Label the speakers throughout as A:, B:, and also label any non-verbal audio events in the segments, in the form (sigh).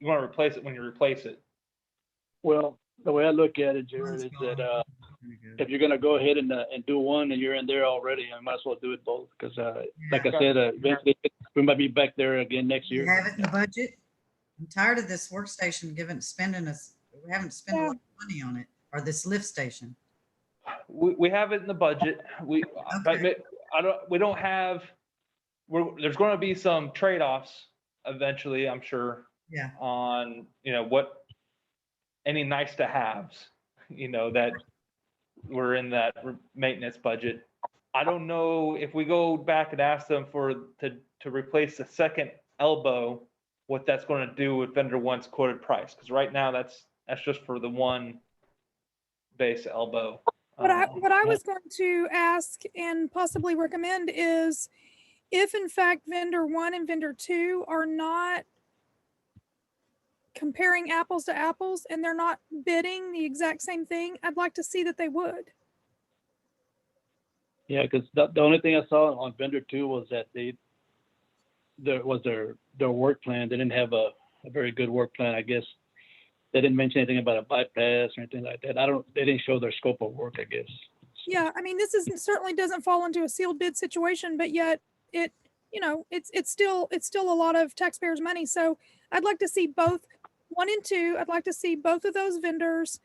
A: you want to replace it when you replace it.
B: Well, the way I look at it, Jared, is that, uh, if you're gonna go ahead and, uh, and do one and you're in there already, I might as well do it both, because, uh, like I said, uh, eventually, we might be back there again next
C: You
B: year.
C: have it in the budget? I'm tired of this workstation giving, spending us, we haven't spent a lot of money on it, or this lift station.
A: We, we have it in the budget. We, but
C: Okay.
A: I don't, we don't have, we're, there's going to be some trade-offs eventually, I'm sure.
C: Yeah.
A: On, you know, what, any nice to haves, you know, that were in that re- maintenance budget. I don't know if we go back and ask them for, to, to replace the second elbow, what that's going to do with vendor one's quoted price, because right now that's, that's just for the one base elbow.
D: What I,
A: Um,
D: what I
A: yeah.
D: was going to ask and possibly recommend is if in fact vendor one and vendor two are not comparing apples to apples and they're not bidding the exact same thing, I'd like to see that they would.
B: Yeah, because the, the only thing I saw on vendor two was that they, there was their, their work plan. They didn't have a, a very good work plan, I guess. They didn't mention anything about a bypass or anything like that. I don't, they didn't show their scope of work, I guess.
D: Yeah, I mean, this isn't, certainly doesn't fall into a sealed bid situation, but yet it, you know, it's, it's still, it's still a lot of taxpayers' money. So I'd like to see both, one and two, I'd like to see both of those vendors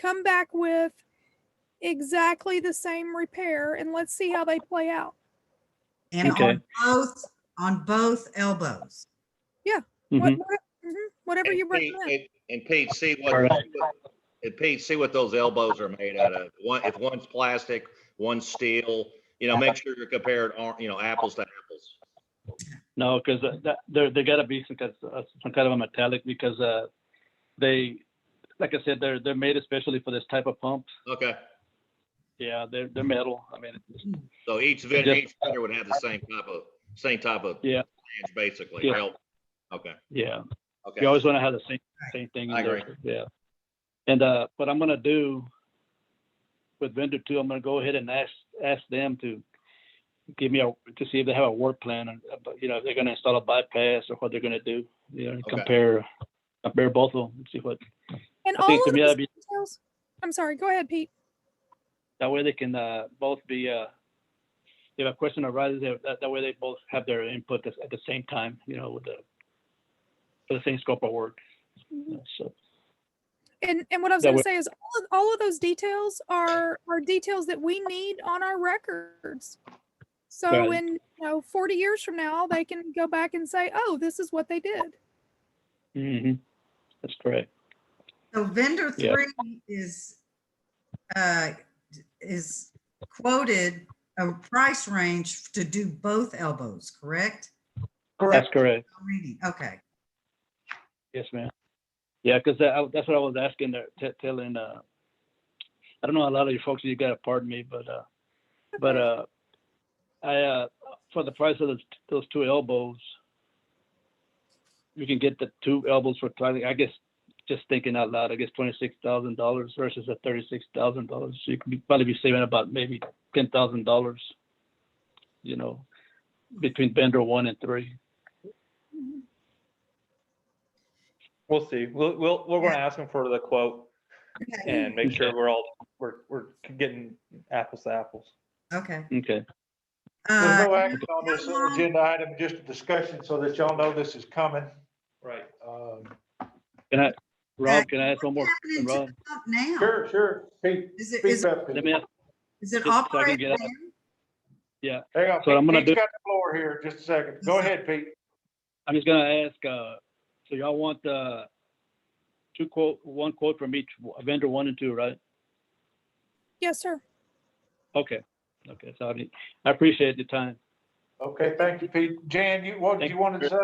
D: come back with exactly the same repair and let's see how they play out.
C: And
B: Okay.
C: on both, on both elbows.
D: What-
B: Mhm.
D: what- mhm, Whatever
E: And
D: you
E: page-
D: recommend.
E: and- And Pete, see
B: All
E: what,
B: right.
E: and Pete, see what those elbows are made out of. One, if one's plastic, one's steel, you know, make sure you're compared, uh, you know, apples to apples.
B: No, because that, there, there gotta be some, kind of- some kind of a metallic because, uh, they, like I said, they're, they're made especially for this type of pump.
E: Okay,
B: Yeah, they're,
E: Mm-hmm.
B: they're metal. I mean, it's-
E: so each vendor,
B: Just-
E: each vendor would have the same type of, same type of.
B: Yeah.
E: flange, Basically,
B: Yeah.
E: help. Okay,
B: yeah.
E: okay.
B: You always want to have the same, same thing. in
E: I
B: there,
E: agree.
B: Yeah. And, uh, what I'm gonna do with vendor two, I'm gonna go ahead and ask, ask them to give me a, to see if they have a work plan, and, uh, but, you know, if they're gonna install a bypass or what they're gonna do. You know, compare, compare both of them, and see what,
D: And
B: I
D: all
B: think
D: of
B: to me,
D: those
B: that'd be,
D: details, I'm sorry, go ahead, Pete.
B: that way they can, uh, both be, uh, if a question arises, they- that, that way they both have their input at at the same time, you know, with the, for the same scope of work, you know, so.
D: And, and what I was
B: That
D: going
B: would-
D: to say is all of, all of those details are, are details that we need on our records. So
B: Right.
D: in, you know, 40 years from now, they can go back and say, oh, this is what they did.
B: Mm-hmm. That's correct.
C: So vendor
B: Yeah.
C: three is, uh, is quoted a price range to do both elbows, correct?
B: That's correct.
C: I'm Reading, okay.
B: Yes, ma'am. Yeah, because that, I- that's what I was asking, there, t- telling, uh, I don't know a lot of you folks, you gotta pardon me, but, uh, but, uh, I, uh, for the price of those, those two elbows, you can get the two elbows for, twenty- I guess, just thinking out loud, I guess twenty-six thousand dollars versus the thirty-six thousand dollars. So you could be- probably be saving about maybe ten thousand dollars, you know, between vendor one and three.
A: We'll see. We'll, we'll, we're gonna ask them for the quote
C: Okay,
A: and make sure we're all, we're, we're getting apples to apples.
C: Okay.
B: Okay.
F: There's no
C: Uh,
F: action on this agenda item, just a discussion so that y'all know this is coming.
A: Right.
F: Um,
B: Can I,
C: Right.
B: Rob, can I ask one more?
C: what's happening to
B: Rob,
C: the pump Now,
F: Sure, sure. Pete,
C: is it,
F: Pete's
C: is,
F: up.
B: let me ask,
C: is it
B: so I can
C: operating
B: get up.
C: now?
F: Hang on.
B: So I'm gonna
F: Pete's
B: do-
F: got the floor here, just a second. Go ahead, Pete.
B: I'm just gonna ask, uh, so y'all want, uh, two quote, one quote from each vendor, one and two, right?
D: Yes, sir.
B: Okay, okay, so I need, I appreciate the time.
F: Okay, thank you, Pete. Jan, you, what did you want to say?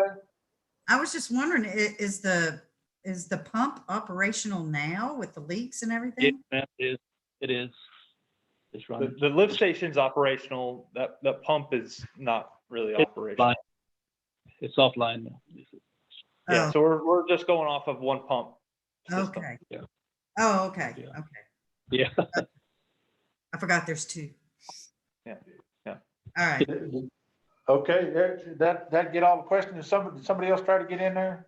C: I was just wondering, i- is the, is the pump operational now with the leaks and
B: Yes,
C: everything?
B: ma'am, It is, it is. It's
A: The,
B: running.
A: the lift station's operational. That, that pump is not really
B: It's
A: operational.
B: fine. It's offline now.
A: Yeah,
C: Oh,
A: so we're, we're just going off of one pump. system.
C: Okay.
B: yeah.
C: Oh, okay, okay.
B: Yeah. Yeah,
C: (laughs) I forgot there's two.
A: Yeah, yeah.
C: All right.
F: Okay, that, that, that get all the questions. Somebody, somebody else try to get in there?